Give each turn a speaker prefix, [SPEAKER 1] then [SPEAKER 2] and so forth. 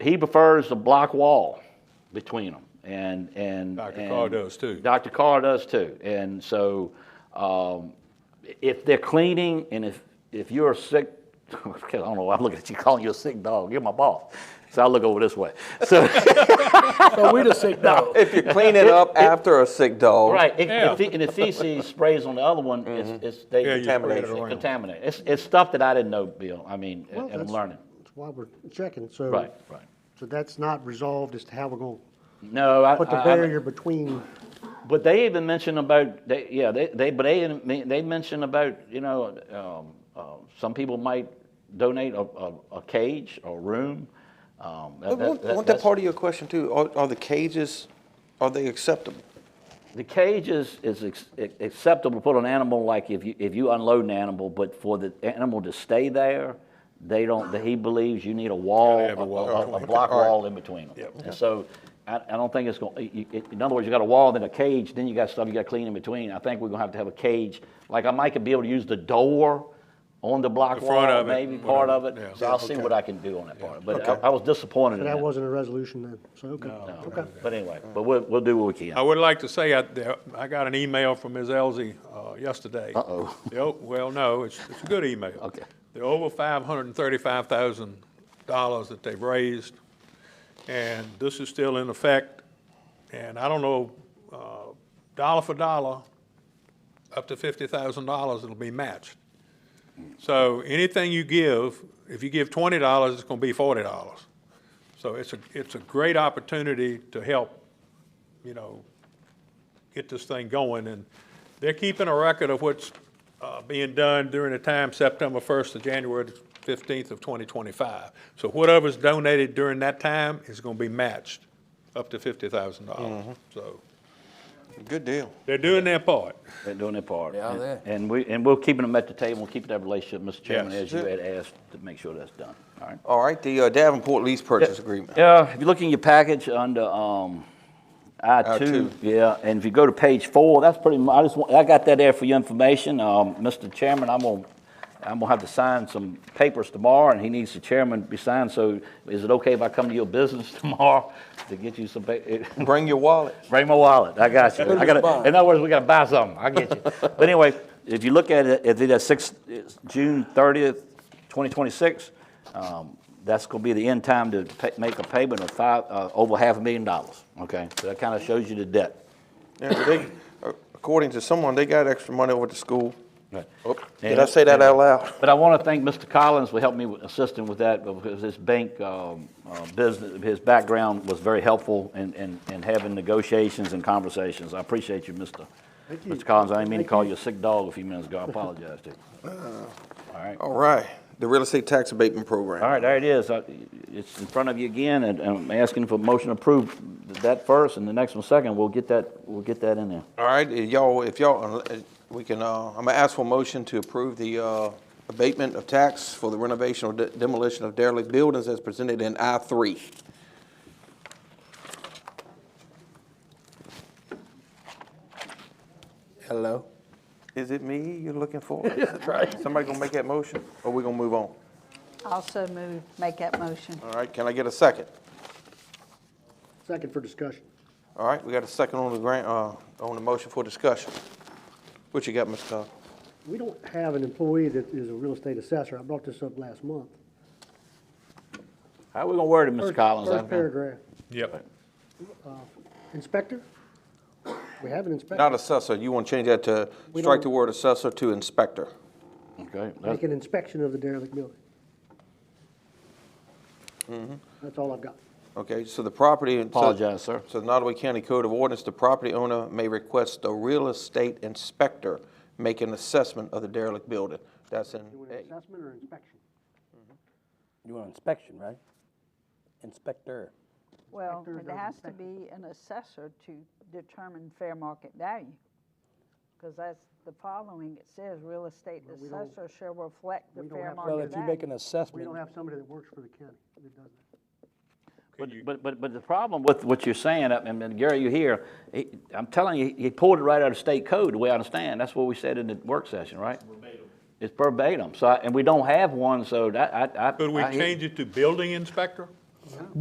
[SPEAKER 1] He prefers the block wall between them, and, and.
[SPEAKER 2] Dr.
[SPEAKER 1] and-
[SPEAKER 2] Carr does too.
[SPEAKER 1] Dr. Carr does too, and so, um, if they're cleaning, and if, if you're a sick, I don't know, why I'm looking at you calling you a sick dog, you're my boss, so I look over this way, so.
[SPEAKER 3] So we the sick dog.
[SPEAKER 4] If you clean it up after a sick dog.
[SPEAKER 1] Right, if,
[SPEAKER 2] Yeah.
[SPEAKER 1] if the, and the feces sprays on the other one, it's, it's they
[SPEAKER 2] Yeah, you spread it
[SPEAKER 1] contaminate. It's
[SPEAKER 2] around.
[SPEAKER 1] contaminate. It's, it's stuff that I didn't know, Bill. I mean,
[SPEAKER 5] Well,
[SPEAKER 1] and I'm
[SPEAKER 5] that's-
[SPEAKER 1] learning.
[SPEAKER 5] That's why we're checking, so.
[SPEAKER 1] Right, right.
[SPEAKER 5] So that's not resolved as to how we're gonna
[SPEAKER 1] No, I,
[SPEAKER 5] put the
[SPEAKER 1] I- I-
[SPEAKER 5] barrier between,
[SPEAKER 1] but they even mentioned about they, yeah they, they but they they mentioned about you know um, uh, some people might donate a, a, a cage or room. Um, that-
[SPEAKER 4] But
[SPEAKER 1] that-
[SPEAKER 4] Wasn't
[SPEAKER 1] that-
[SPEAKER 4] wasn't that
[SPEAKER 1] that's-
[SPEAKER 4] part of your question too? Are, are the cages, are they acceptable?
[SPEAKER 1] The cage is, is ex- ac- acceptable to put an animal, like if you, if you unload an animal, but for the animal to stay there, they don't, that he believes you need a wall,
[SPEAKER 2] Gotta have
[SPEAKER 1] a,
[SPEAKER 2] a wall
[SPEAKER 1] a- a
[SPEAKER 2] between.
[SPEAKER 1] block
[SPEAKER 4] All right.
[SPEAKER 1] wall in between them. And so, I, I don't think it's gonna, you- you- in other words, you got a wall, then a cage, then you got stuff you gotta clean in between. I think we're gonna have to have a cage, like I might could be able to use the door on the block
[SPEAKER 2] The front
[SPEAKER 1] wall,
[SPEAKER 2] of it,
[SPEAKER 1] maybe part of it.
[SPEAKER 2] whatever, yeah.
[SPEAKER 1] So I'll see what I can do on that part, but I- I was disappointed in
[SPEAKER 5] but that
[SPEAKER 1] that.
[SPEAKER 5] wasn't a resolution then, so, okay. Okay.
[SPEAKER 1] But anyway, but we'll, we'll do what we
[SPEAKER 2] I
[SPEAKER 1] can.
[SPEAKER 2] would like to say, I, there- I got an email from Ms. Elzey uh, yesterday.
[SPEAKER 1] Uh-oh.
[SPEAKER 2] The o- Well, no, it's, it's a good email.
[SPEAKER 1] Okay.
[SPEAKER 2] The over five hundred and thirty-five thousand dollars that they've raised, and this is still in effect. And I don't know, uh, dollar for dollar, up to fifty thousand dollars, it'll be matched. So anything you give, if you give twenty dollars, it's gonna be forty dollars. So it's a, it's a great opportunity to help, you know, get this thing going. And they're keeping a record of what's uh, being done during the time September 1st to January 15th of 2025. So whatever's donated during that time is going to be matched up to $50,000. So
[SPEAKER 4] Good deal.
[SPEAKER 2] they're doing their part.
[SPEAKER 1] They're doing their part.
[SPEAKER 3] Yeah,
[SPEAKER 1] And-
[SPEAKER 3] they-
[SPEAKER 1] And we, and we're keeping them at the table, we're keeping that relationship, Mr. Chairman,
[SPEAKER 2] Yes.
[SPEAKER 1] as you had asked, to make sure that's done, all right?
[SPEAKER 4] All right, the uh, Davenport lease purchase agreement.
[SPEAKER 1] Yeah, if you look in your package under, um, I two,
[SPEAKER 4] two.
[SPEAKER 1] yeah, and if you go to page four, that's pretty mu, I just, want- I got that there for your information, um, Mr. Chairman, I'm gonna, I'm gonna have to sign some papers tomorrow, and he needs the chairman to be signed, so is it okay if I come to your business tomorrow to get you some pa-
[SPEAKER 4] Bring your wallet.
[SPEAKER 1] Bring my wallet. I got you. I got. In other words, we got to buy something. I get you. but anyway, if you look at it, if it's six, it's June thirtieth, twenty twenty six, um, that's going to be the end time to pay, make a payment of five uh, over half a million dollars. Okay, so that kind of shows you the debt.
[SPEAKER 4] Yeah, but they- uh, According to someone, they got extra money over at the school.
[SPEAKER 1] Right.
[SPEAKER 4] Oop, Oh, Did
[SPEAKER 1] And-
[SPEAKER 4] I say that out loud?
[SPEAKER 1] But I want to thank Mr. Collins for helping me with assisting with that because his bank um, uh, business, his background was very helpful in, in, in having negotiations and conversations. I appreciate you, Mr.
[SPEAKER 5] Thank you.
[SPEAKER 1] Mr. Collins. I didn't mean to
[SPEAKER 5] Thank
[SPEAKER 1] call
[SPEAKER 5] you. Uh,
[SPEAKER 1] you a sick dog a few minutes ago. I apologize to you. All right.
[SPEAKER 4] All right, the real estate tax abatement program.
[SPEAKER 1] All right, there it is. Uh, It's in front of you again, and and I'm asking for motion to approve that first and the next one second. We'll get that, we'll get that in there.
[SPEAKER 4] All right, if y'all, if y'all, uh, we can, uh, I'm gonna ask for a motion to approve the, uh, abatement of tax for the renovation or de- demolition of derelict buildings as presented in I three.
[SPEAKER 3] Hello.
[SPEAKER 4] Is it me you're looking for? Somebody gonna make that motion, or we gonna move on?
[SPEAKER 6] Also move, make that motion.
[SPEAKER 3] Uh,
[SPEAKER 4] All right, can I get a second?
[SPEAKER 5] Second for discussion.
[SPEAKER 4] All right, we got a second on the grant, uh, on the motion for discussion. What you got, Mr. Todd?
[SPEAKER 5] We don't have an employee that is a real estate assessor. I brought this up last month.
[SPEAKER 1] How are we going to word it, Mr.
[SPEAKER 5] First-
[SPEAKER 1] Collins?
[SPEAKER 5] First paragraph.
[SPEAKER 2] Yep.
[SPEAKER 5] Inspector? We have an
[SPEAKER 4] Not
[SPEAKER 5] inspector.
[SPEAKER 4] assessor, you wanna change that to,
[SPEAKER 5] We
[SPEAKER 4] strike the
[SPEAKER 5] don't-
[SPEAKER 4] word assessor to inspector.
[SPEAKER 1] Okay.
[SPEAKER 5] Make an inspection of the derelict building. That's all I've got.
[SPEAKER 4] Okay, so the property.
[SPEAKER 1] Apologize, sir.
[SPEAKER 4] So the Nottaway County Code of Ordinance, the property owner may request the real estate inspector make an assessment of the derelict building. That's in
[SPEAKER 5] You want an
[SPEAKER 4] A.
[SPEAKER 5] assessment or inspection?
[SPEAKER 3] You want inspection, right? Inspector.
[SPEAKER 6] Well,
[SPEAKER 5] Inspector
[SPEAKER 6] it
[SPEAKER 5] goes
[SPEAKER 6] has to be an assessor to determine fair market value. Because that's the following, it says real estate assessor shall reflect the
[SPEAKER 5] we don't
[SPEAKER 6] fair
[SPEAKER 5] have-
[SPEAKER 3] Well,
[SPEAKER 6] market
[SPEAKER 3] if you make
[SPEAKER 6] value.
[SPEAKER 3] an
[SPEAKER 5] We
[SPEAKER 3] assessment,
[SPEAKER 5] don't have somebody that works for the county that does that.
[SPEAKER 1] But, but, but, but the problem with what you're saying, I mean, Gary, you hear, he- I'm telling you, he pulled it right out of state code, the way I understand. That's what we said in the work session, right? Verbatim. It's verbatim. So, I- and we don't have one, so that, I, I.
[SPEAKER 2] Could we
[SPEAKER 1] I hear-
[SPEAKER 2] change it to building inspector?